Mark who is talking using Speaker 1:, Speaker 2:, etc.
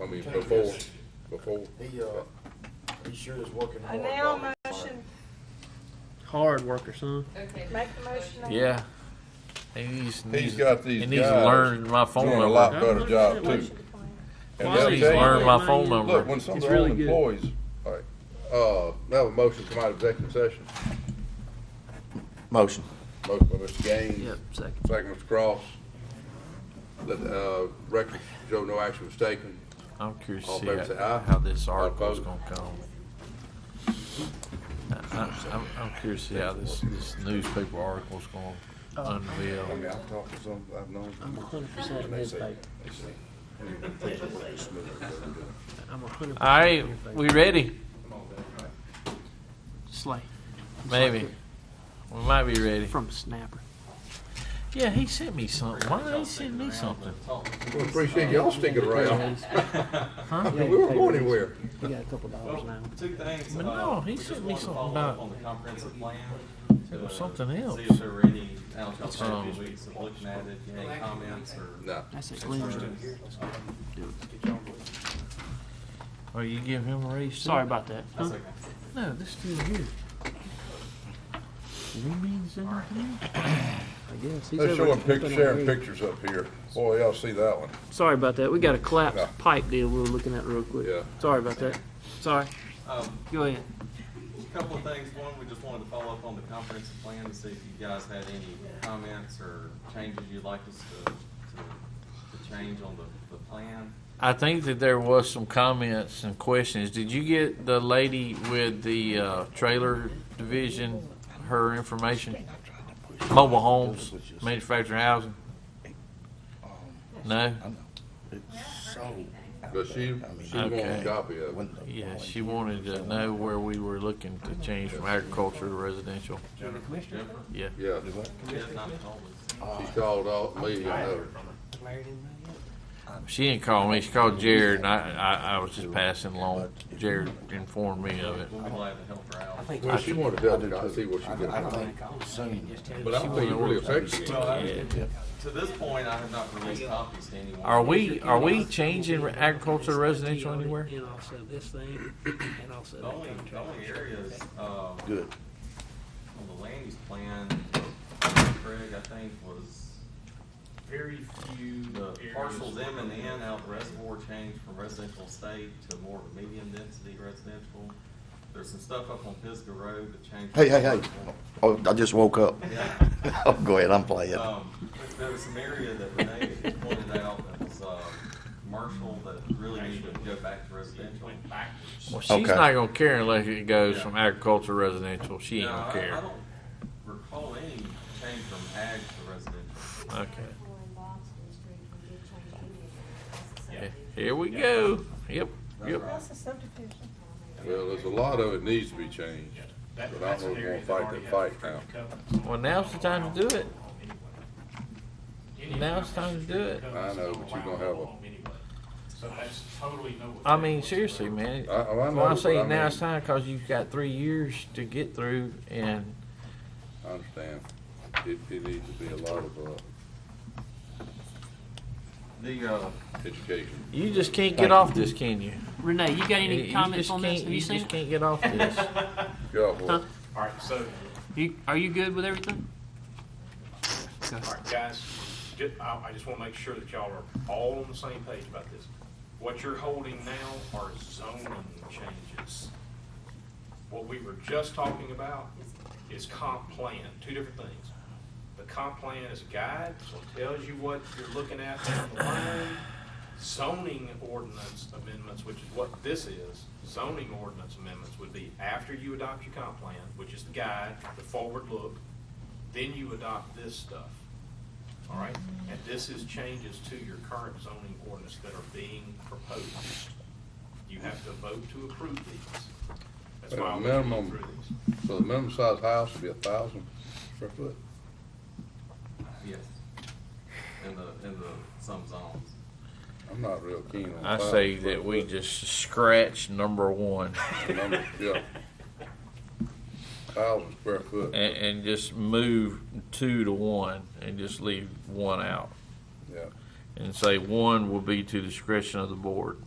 Speaker 1: I mean, before, before.
Speaker 2: He, uh, he sure is working
Speaker 3: I
Speaker 2: hard.
Speaker 3: now
Speaker 2: while he's
Speaker 3: motion,
Speaker 4: Hard worker, son.
Speaker 5: Okay.
Speaker 3: make a motion. on-
Speaker 6: Yeah. He needs,
Speaker 1: He's got these
Speaker 6: he needs to
Speaker 1: guys
Speaker 6: learn my phone
Speaker 1: doing a
Speaker 6: number.
Speaker 1: lot
Speaker 4: I'm
Speaker 1: better
Speaker 4: not
Speaker 1: job
Speaker 4: sure
Speaker 1: too.
Speaker 4: what
Speaker 1: And
Speaker 4: she-
Speaker 6: He
Speaker 4: Why
Speaker 1: they'll
Speaker 4: is
Speaker 6: needs
Speaker 4: he
Speaker 6: to
Speaker 1: tell you-
Speaker 6: learn my
Speaker 4: Yeah.
Speaker 6: phone number.
Speaker 1: Look, when some of
Speaker 4: It's
Speaker 1: their own
Speaker 4: really good.
Speaker 1: employees, all right, uh, now a motion come out of executive session.
Speaker 7: Motion.
Speaker 1: Motion by Mr. Gaines,
Speaker 4: Yep, second.
Speaker 1: second Mr. Cross. That, uh, record show no action was taken.
Speaker 6: I'm curious
Speaker 1: All
Speaker 6: to see
Speaker 1: favor say aye.
Speaker 6: how, how this
Speaker 1: All
Speaker 6: article's
Speaker 1: opposed.
Speaker 6: gonna come. I- I- I'm, I'm curious to see how this, this newspaper article's
Speaker 4: Oh.
Speaker 6: gonna
Speaker 1: I mean,
Speaker 6: unveil.
Speaker 1: I've talked to some, I've known.
Speaker 4: I'm
Speaker 1: some,
Speaker 4: 100% in
Speaker 1: and they
Speaker 4: his
Speaker 1: say-
Speaker 4: favor.
Speaker 1: they say, "Hey, things are working smooth, they're doing good."
Speaker 4: I'm 100%
Speaker 6: All right,
Speaker 4: in his favor.
Speaker 6: we ready?
Speaker 4: Slay.
Speaker 6: Maybe. We might be ready.
Speaker 4: From Snapper.
Speaker 6: Yeah, he sent me something. Why did he send me something?
Speaker 1: We appreciate y'all sticking around.
Speaker 6: Huh?
Speaker 1: We weren't going anywhere.
Speaker 4: You got a couple dollars now.
Speaker 8: Two things.
Speaker 6: But
Speaker 8: uh,
Speaker 6: no, he
Speaker 8: we just
Speaker 6: sent me
Speaker 8: wanted to
Speaker 6: something
Speaker 8: follow
Speaker 6: about-
Speaker 8: up On the comprehensive plan.
Speaker 6: It was
Speaker 8: uh,
Speaker 6: something else.
Speaker 8: See if there were any, Al, y'all said
Speaker 6: Um,
Speaker 8: this week, so looking at it, you know, any comments or?
Speaker 1: No.
Speaker 4: That's it. Glenn.
Speaker 6: Oh, you give him a raise? too?
Speaker 4: Sorry about that.
Speaker 8: That's
Speaker 4: Huh?
Speaker 8: okay.
Speaker 6: No, this dude here. We mean something?
Speaker 4: I guess. He's
Speaker 1: They're
Speaker 4: over
Speaker 1: showing
Speaker 4: at-
Speaker 1: pictures, sharing
Speaker 4: Yeah.
Speaker 1: pictures up here. Boy, y'all see that one.
Speaker 4: Sorry about that. We got a collapsed
Speaker 1: Yeah.
Speaker 4: pipe deal we were looking at real quick.
Speaker 1: Yeah.
Speaker 4: Sorry about that. Sorry.
Speaker 8: Um,
Speaker 4: Go ahead.
Speaker 8: a couple of things. One, we just wanted to follow up on the comprehensive plan to see if you guys had any comments or changes you'd like us to, to, to change on the, the plan.
Speaker 6: I think that there was some comments and questions. Did you get the lady with the uh, trailer division, her information? Mobile homes, manufactured housing? No?
Speaker 7: So,
Speaker 1: But she, she wants a
Speaker 6: Okay.
Speaker 1: copy of it.
Speaker 6: Yeah, she wanted to know where we were looking to change from agriculture to residential.
Speaker 8: Jennifer?
Speaker 6: Yeah.
Speaker 1: Yeah,
Speaker 8: Yeah, not always.
Speaker 1: she called all, me and her.
Speaker 6: She didn't call me. She called Jared, and I, I, I was just passing along. Jared informed me of it.
Speaker 8: We'll be glad to help her out.
Speaker 1: Well, she wanted to tell me, I see what she
Speaker 7: I
Speaker 1: did.
Speaker 7: think soon.
Speaker 1: But I don't think it really affects you.
Speaker 8: Well, I-
Speaker 6: Yeah.
Speaker 8: To this point, I have not released copies to anyone.
Speaker 6: Are we are we changing agriculture to residential anywhere?
Speaker 4: And also this thing, and also
Speaker 8: The only, the only areas, um,
Speaker 7: Good.
Speaker 8: on the land use plan, Craig, I think, was very few the parcels M and N out of the reservoir changed from residential estate to more of a medium density residential. There's some stuff up on Pisgah Road that changed.
Speaker 7: Hey, hey, hey. Oh, I just woke up. Oh, go ahead, I'm playing.
Speaker 8: Um, there was some area that Renee had pointed out that was, uh, commercial that really needed to go back to residential.
Speaker 6: Well, she's
Speaker 7: Okay.
Speaker 6: not gonna care unless it goes from agriculture to residential. She ain't
Speaker 8: No,
Speaker 6: gonna
Speaker 8: I- I
Speaker 6: care.
Speaker 8: don't recall any change from ag to residential.
Speaker 6: Okay. He- Here we go. Yep. Yep.
Speaker 3: That's a subdivision.
Speaker 1: Well, there's a lot of it needs to be changed, but I don't know if we're gonna fight that fight now.
Speaker 6: Well, now's the time to do it. Now's the time to do it.
Speaker 1: I know, but you're gonna have a-
Speaker 9: So that's totally no.
Speaker 6: I mean, seriously, man.
Speaker 1: I, I know,
Speaker 6: Well, I
Speaker 1: but
Speaker 6: say
Speaker 1: I mean,
Speaker 6: now it's time because you've got three years to get through and
Speaker 1: I understand. It, it needs to be a lot of, uh,
Speaker 8: The, uh,
Speaker 1: education.
Speaker 6: you just can't get off this, can you?
Speaker 4: Renee, you got
Speaker 6: You
Speaker 4: any
Speaker 6: just
Speaker 4: comments on this?
Speaker 6: can't-
Speaker 4: Have you seen
Speaker 6: just
Speaker 4: it?
Speaker 6: can't get off this.
Speaker 1: Yeah, well,
Speaker 9: All right, so,
Speaker 4: You, are you good with everything? Go.
Speaker 9: all right, guys, ju- I, I just wanna make sure that y'all are all on the same page about this. What you're holding now are zoning changes. What we were just talking about is comp plan, two different things. The comp plan is a guide, so it tells you what you're looking at down the line. Zoning ordinance amendments, which is what this is, zoning ordinance amendments would be after you adopt your comp plan, which is the guide, the forward look, then you adopt this stuff. All right? And this is changes to your current zoning ordinance that are being proposed. You have to vote to approve these. That's
Speaker 1: At a
Speaker 9: why I'm going
Speaker 1: minimum,
Speaker 9: through these.
Speaker 1: so the minimum size house would be a thousand square foot.
Speaker 8: yes, in the, in the, some zones.
Speaker 1: I'm not real keen on.
Speaker 6: I
Speaker 1: 1,000
Speaker 6: say
Speaker 1: square
Speaker 6: that we
Speaker 1: foot.
Speaker 6: just scratch number one
Speaker 1: Number- Yeah. Thousand square foot,
Speaker 6: and, and just move two to one and just leave one out
Speaker 1: yeah.
Speaker 6: and say one will be to discretion of the board.